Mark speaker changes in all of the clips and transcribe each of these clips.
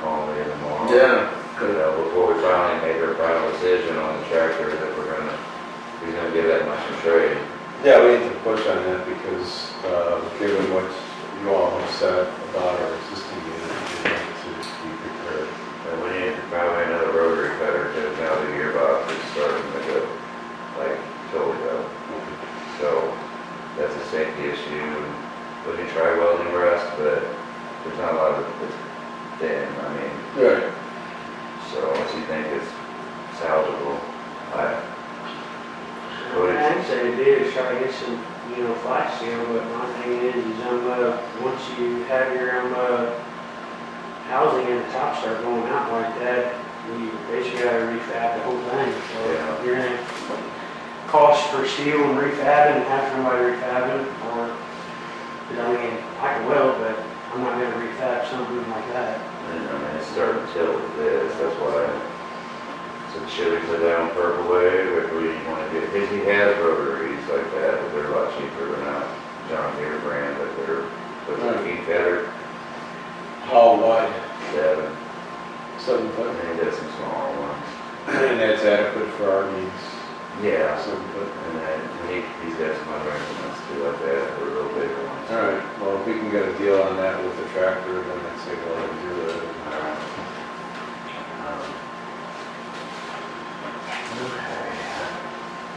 Speaker 1: uh,
Speaker 2: uh, Right.
Speaker 1: So if you think it's salvageable, I,
Speaker 3: I'd say it is, try to get some, you know, flash sale, but my thing is, is um, uh, once you have your, um, uh, housing and the tops start going out like that, you basically gotta refab the whole thing,
Speaker 1: Yeah.
Speaker 3: so you're gonna cost for steel and refabbing, and have somebody refabbing, or, 'cause I mean, I can weld, but I'm not gonna refab something like that.
Speaker 1: I mean, it's starting to tilt with this, that's why. So should we put that on Purple Wave, or do we wanna do, cause he has rotaries like that, but they're a lot cheaper than not John Deere brand, but they're, but they're heat better,
Speaker 2: How wide?
Speaker 1: seven,
Speaker 2: Seven
Speaker 1: I
Speaker 2: foot.
Speaker 1: think that's some small ones.
Speaker 2: And that's adequate for our needs,
Speaker 1: Yeah,
Speaker 2: seven foot.
Speaker 1: and then he, he's got some other instruments too like that, for real big ones.
Speaker 2: All right, well, if we can get a deal on that with the tractor, then I'd say go ahead and do it.
Speaker 1: Um,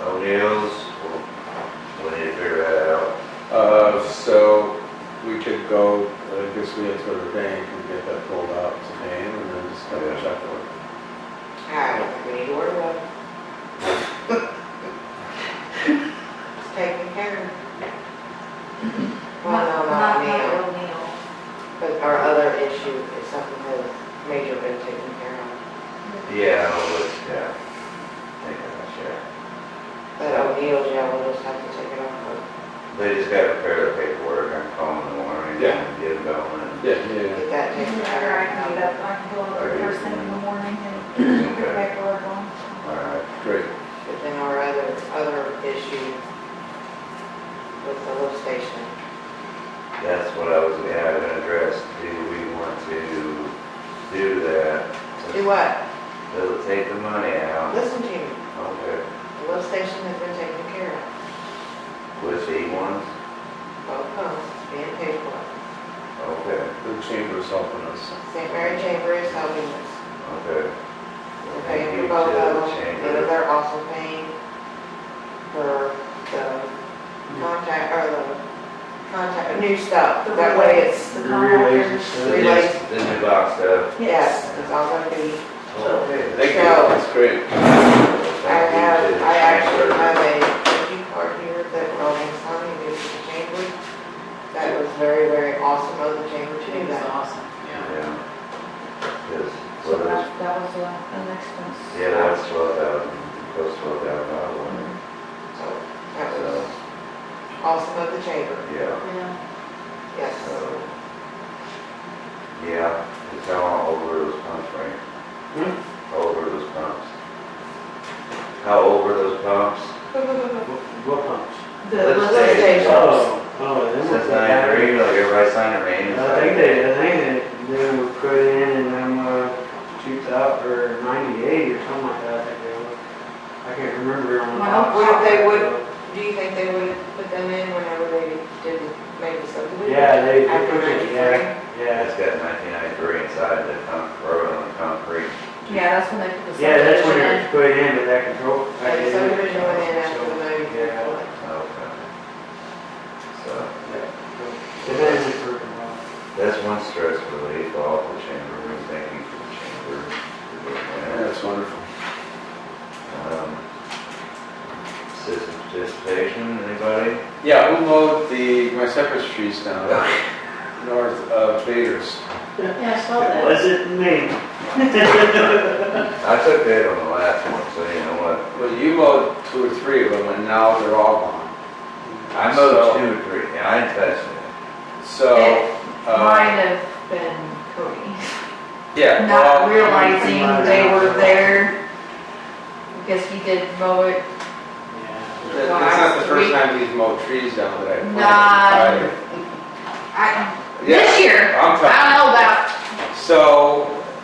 Speaker 1: O'Neill's, we'll- we need to figure that out.
Speaker 2: Uh, so we could go, I guess we have to go to the bank and get that pulled out today and then just kind of check it.
Speaker 4: I don't think we need to worry about it. It's taken care of. Well, no, not now,
Speaker 5: Not O'Neil.
Speaker 4: but our other issue is something that is major been taken care of.
Speaker 1: Yeah, I'll look, yeah. Take that, sure.
Speaker 4: But O'Neill's, yeah, we'll just have to take it off,
Speaker 1: They just gotta prepare the paperwork, I'm calling in the morning,
Speaker 2: Yeah.
Speaker 1: and get it going.
Speaker 2: Yeah,
Speaker 4: but
Speaker 2: yeah,
Speaker 4: get that taken
Speaker 5: Whenever I can get
Speaker 4: care
Speaker 5: up, I can go over first thing in the morning and put the
Speaker 1: Okay,
Speaker 5: paperwork on.
Speaker 1: all right,
Speaker 2: great.
Speaker 4: of. But then our other, other issue with the lift station,
Speaker 1: that's what I was, yeah, I've been addressed, do we want to do that?
Speaker 4: do what?
Speaker 1: It'll take the money out,
Speaker 4: Listen to me,
Speaker 1: okay,
Speaker 4: the lift station has been taken care of,
Speaker 1: with the ones,
Speaker 4: both pumps being paid for.
Speaker 1: okay,
Speaker 2: The chamber's helping us.
Speaker 4: St. Mary Chamber is helping us.
Speaker 1: okay.
Speaker 4: We're
Speaker 1: Thank
Speaker 4: paying
Speaker 1: you
Speaker 4: for
Speaker 1: to
Speaker 4: both of
Speaker 1: the
Speaker 4: them, and
Speaker 1: chamber.
Speaker 4: they're also paying for the contact, or the contact, new stuff.
Speaker 5: The
Speaker 4: That way it's,
Speaker 5: The
Speaker 2: Relays and
Speaker 5: contractors.
Speaker 2: stuff.
Speaker 4: Relays.
Speaker 1: Yes, The new box stuff.
Speaker 4: yes, it's all gonna be,
Speaker 1: Okay.
Speaker 2: Thank you, that's great.
Speaker 1: Thank
Speaker 4: I have,
Speaker 1: you to the
Speaker 4: I actually
Speaker 1: chamber.
Speaker 4: have a thank you card here that Rolling Stone gave to the chamber. That was very, very awesome of the chamber to do that.
Speaker 3: awesome.
Speaker 1: Yeah. Yes,
Speaker 5: So
Speaker 1: well, that's-
Speaker 5: that, that was the, the next one.
Speaker 1: yeah, that's twelve thousand, close to twelve thousand dollars,
Speaker 4: So that
Speaker 1: so,
Speaker 4: was awesome of the chamber,
Speaker 1: yeah,
Speaker 5: Yeah,
Speaker 4: yes.
Speaker 1: so. Yeah, it's how over those pumps, right?
Speaker 3: Hmm?
Speaker 1: How over those pumps? How over those pumps?
Speaker 3: uh, What pumps?
Speaker 5: The
Speaker 1: Let's
Speaker 5: list-
Speaker 1: say-
Speaker 4: Lift stations.
Speaker 3: Oh, oh, them
Speaker 1: Since
Speaker 3: was the
Speaker 1: I
Speaker 3: battery.
Speaker 1: agree, like everybody signed a name.
Speaker 3: I think they, I think they, they were put in in them, uh, two thousand, or ninety-eight or something like that, I think they were. I can't remember on the
Speaker 5: Well,
Speaker 3: top.
Speaker 4: what if they would- Do you think they would have put them in whenever they didn't make the subdivision?
Speaker 3: Yeah, they, they
Speaker 4: After
Speaker 3: put it, yeah, yeah.
Speaker 1: It's got nineteen ninety-three inside the con, or on the concrete.
Speaker 5: yeah, that's when they put the.
Speaker 3: Yeah, that's when
Speaker 5: subdivision
Speaker 3: it was put in, but that control. that
Speaker 4: Like the
Speaker 3: didn't-
Speaker 4: subdivision went in after the movie.
Speaker 3: Yeah.
Speaker 1: Okay. So,
Speaker 3: So, It hasn't worked well.
Speaker 1: that's one stress relief off the chamber, and thank you for the chamber. for doing that.
Speaker 2: That's wonderful.
Speaker 1: Um, Citizen participation, anybody?
Speaker 2: Yeah, who mowed the, my cypress trees down north of Bader's?
Speaker 5: in. Yeah, I saw
Speaker 3: It
Speaker 5: that.
Speaker 3: wasn't me.
Speaker 1: I took that on the last one, so you know what?
Speaker 2: Well, you mowed two or three of them and now they're all gone.
Speaker 1: I mowed two or three, and I didn't touch it.
Speaker 2: So,
Speaker 5: It
Speaker 2: uh,
Speaker 5: Might have been Cody,
Speaker 2: yeah. well,
Speaker 5: not realizing they were there. Because he did mow it,
Speaker 3: Yeah.
Speaker 2: That- That's not the first time he's mowed trees down that I planted.
Speaker 5: I,
Speaker 2: Yeah,
Speaker 5: this year, I
Speaker 2: I'm
Speaker 5: don't know about
Speaker 2: telling you. So